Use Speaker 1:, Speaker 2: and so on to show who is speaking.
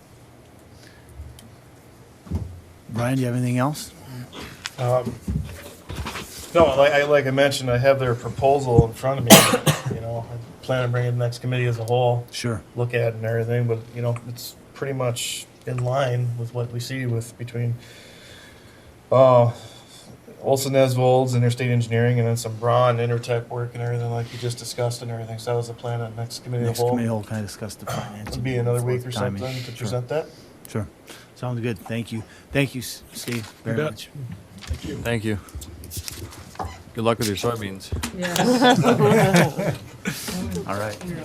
Speaker 1: Brian, do you have anything else?
Speaker 2: Um, No, like I, like I mentioned, I have their proposal in front of me, you know, I plan on bringing the next committee as a whole,
Speaker 1: Sure.
Speaker 2: look at it and everything, but, you know, it's pretty much in line with what we see with between, uh, Olson Nesvold's Interstate Engineering and then some Braun Intertech work and everything like you just discussed and everything, so that was the plan on next committee of
Speaker 1: Next
Speaker 2: the whole.
Speaker 1: committee will kind of discuss the finances.
Speaker 2: It'd be another week or
Speaker 1: Timing.
Speaker 2: something to
Speaker 1: Sure,
Speaker 2: present that.
Speaker 1: Sure. Sounds good. Thank you. Thank you, S- Steve, very
Speaker 3: bet.
Speaker 1: much.
Speaker 4: Thank you. Good luck with your soybeans.
Speaker 5: Yes.
Speaker 1: All right.